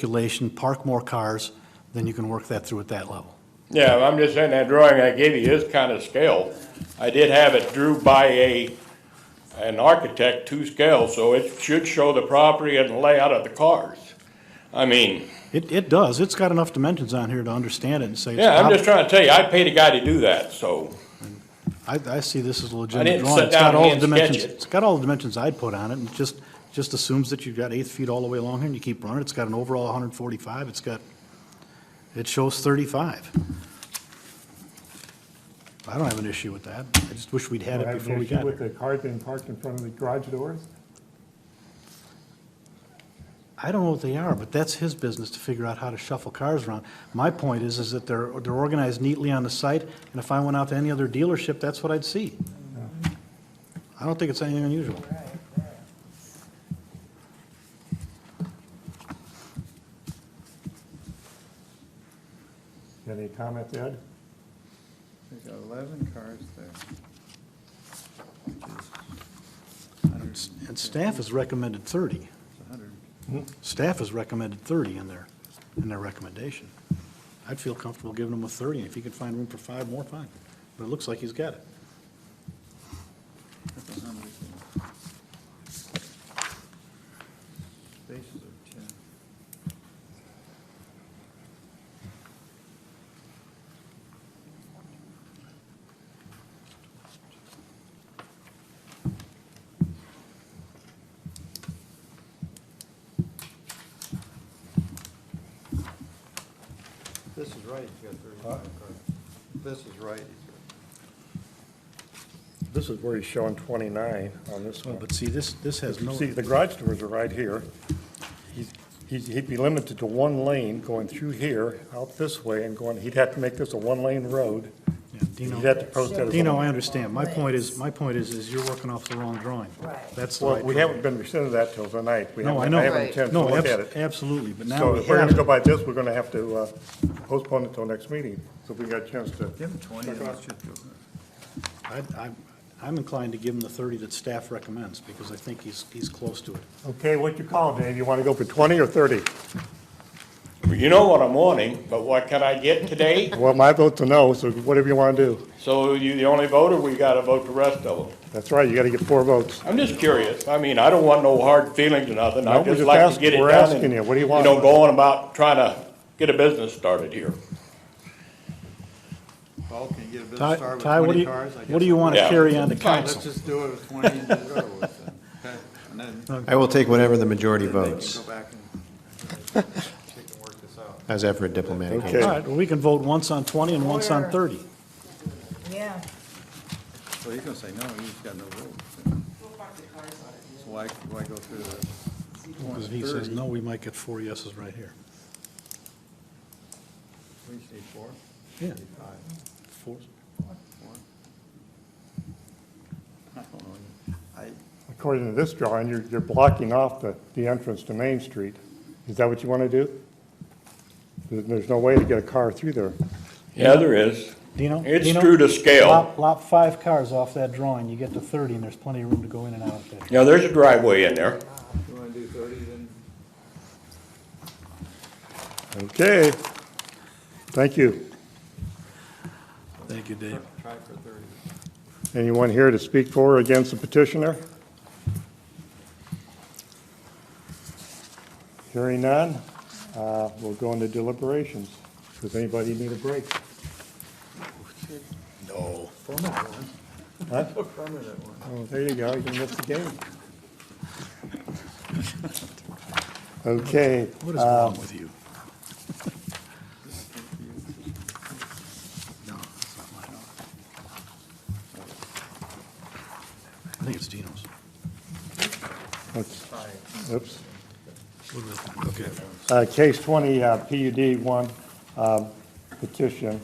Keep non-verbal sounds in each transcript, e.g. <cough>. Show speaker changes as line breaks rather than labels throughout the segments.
circulation, park more cars, then you can work that through at that level.
Yeah, I'm just saying that drawing I gave you is kind of scale. I did have it drew by a, an architect to scale, so it should show the property and the layout of the cars. I mean,
It, it does, it's got enough dimensions on here to understand it and say. it's
yeah, I'm
prob-
just trying to tell you, I paid a guy to do that, so,
I, I see this as a legitimate
didn't
drawing.
sit
It's got
down and
all the
hand sketch
dimensions.
it.
It's got all the dimensions I'd put on it, and it just, just assumes that you've got eight feet all the way along here, and you keep running, it's got an overall hundred and forty-five, it's got, it shows thirty-five. I don't have an issue with that, I just wish we'd had
Don't
it
have an
before we
issue
got
With
here.
the cars being parked in front of the garage doors?
I don't know what they are, but that's his business to figure out how to shuffle cars around. My point is, is that they're, they're organized neatly on the site, and if I went out to any other dealership, that's what I'd see. I don't think it's anything unusual.
Any comments, Ed?
They got eleven cars there.
And and staff has recommended 30.
It's a hundred.
Staff has recommended 30 in their, in their recommendation. I'd feel comfortable giving him a 30, and if he could find room for five more, fine. But it looks like he's got it.
That's a hundred. Spaces of ten. This is right, he's got thirty-five cars. This is right, he's got.
This is where he's showing 29 on this
Well,
one.
Oh, But see, this, this has no,
See, the garage doors are right here. He's- he's- He'd be limited to one lane going through here, out this way, and going, he'd have to make this a one-lane road.
Yeah,
He'd
Dino,
have to post that as. a-
Dino, I understand. My point is, my point is, is you're working off the wrong drawing.
Right.
That's the
Well,
right.
we haven't been presented that till tonight. We
No, I
haven't-
know.
haven't had a chance to
No,
look at
abs-
it.
absolutely, but now
So
we
if we're going to go
have,
by this, we're going to have to uh, postpone it till next meeting, so we got a chance to.
Give him twenty, and
Check it
that
out.
should do it.
I'd- I'm, I'm inclined to give him the 30 that staff recommends, because I think he's, he's close to it.
Okay, what you call it, Dave? You want to go for 20 or 30?
you know what I'm wanting, but what can I get today? <laughs>
Well, my vote's a no, so whatever you want to do.
So you the only voter, we gotta vote the rest of them.
That's right, you got to get four votes.
I'm just curious. I mean, I don't want no hard feelings or nothing.
No,
I
we're
just
just
like to
asking-
get it done.
we're
and,
asking you, what do you want?
You know, going about trying to get a business started here.
Paul, can you get a bit of
Ty,
start with
Ty, what do
twenty
you,
cars? I
what do
guess
you want to
Yeah.
carry on to
I'll- Fine,
council?
let's just do it with twenty and just go with it. Okay, and then then
I will take whatever the majority
they can
votes,
go back and uh, they can work this out.
as ever a diplomatic.
Okay.
All right, well, we can vote once on 20 and once on 30.
Yeah,
Well, you're gonna say no, you just got no vote. So why, why go through the
Because he
twenty,
says,
thirty?
no, we might get four yeses right here.
We just need four,
Yeah.
need five,
Four.
four. I don't know. I,
According to this drawing, you're, you're blocking off the, the entrance to Main Street. Is that what you want to do? There- There's no way to get a car through there.
Yeah, there is.
Dino?
It's
Dino?
true to scale.
Lop- Lop five cars off that drawing, you get to 30, and there's plenty of room to go in and out of there.
Yeah, there's a driveway in there.
you wanna do thirty, then
Okay. Thank you.
Thank you, Dave.
try for thirty.
Anyone here to speak for or against the petitioner? Hearing none, uh, we'll go into deliberations. Does anybody need a break?
A permanent one.
Oh, there you go, you can miss the game. Okay.
What is wrong with you? No, it's not mine. I think it's Dino's.
Let's- Oops.
What is it? Okay.
Uh, Case 20, uh, PUD 1 um, petition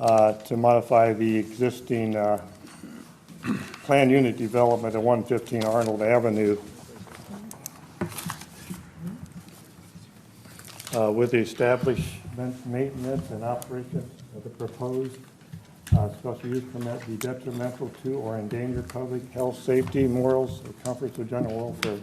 uh, to modify the existing uh, planned unit development at 115 Arnold Avenue uh, with the establishment, maintenance, and operation of the proposed uh, special use permit be detrimental to or endanger public health, safety, morals, or comforts of general welfare